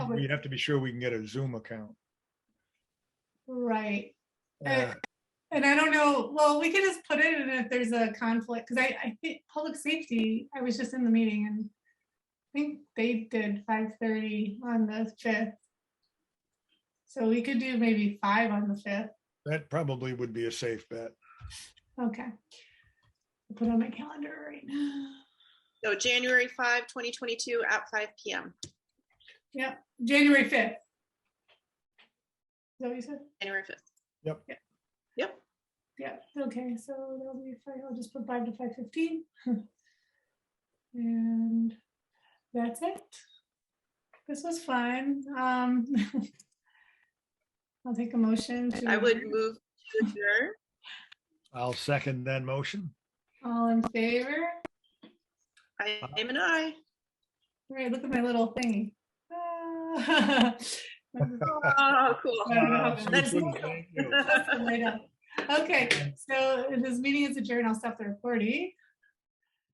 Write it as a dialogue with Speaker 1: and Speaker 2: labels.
Speaker 1: would-
Speaker 2: we have to be sure we can get a Zoom account.
Speaker 1: Right.
Speaker 3: Eh.
Speaker 2: Uh,
Speaker 1: And I don't know, well, we could just put it in if there's a conflict, because I, I think public safety, I was just in the meeting and I think they did five thirty on the fifth. So we could do maybe five on the fifth.
Speaker 2: That probably would be a safe bet.
Speaker 1: Okay. I'll Put it on my calendar right now.
Speaker 3: So January 5, 2022 at 5 PM.
Speaker 1: January fifth. Is that what you said?
Speaker 3: January 5th.
Speaker 1: Yeah, okay, so that'll be, fine. I'll just put five to five fifteen. And that's it. This was fun. Um I'll take a motion to.
Speaker 3: I would move to adjourn.
Speaker 2: I'll second that motion.
Speaker 1: All in favor?
Speaker 3: I am an I.
Speaker 1: Right, look at my little thingy. Ah.
Speaker 3: Oh, cool.
Speaker 2: Uh,
Speaker 3: That's-
Speaker 2: thank you.
Speaker 1: Right up. Okay, so this meeting is adjourned. I'll stop the recording.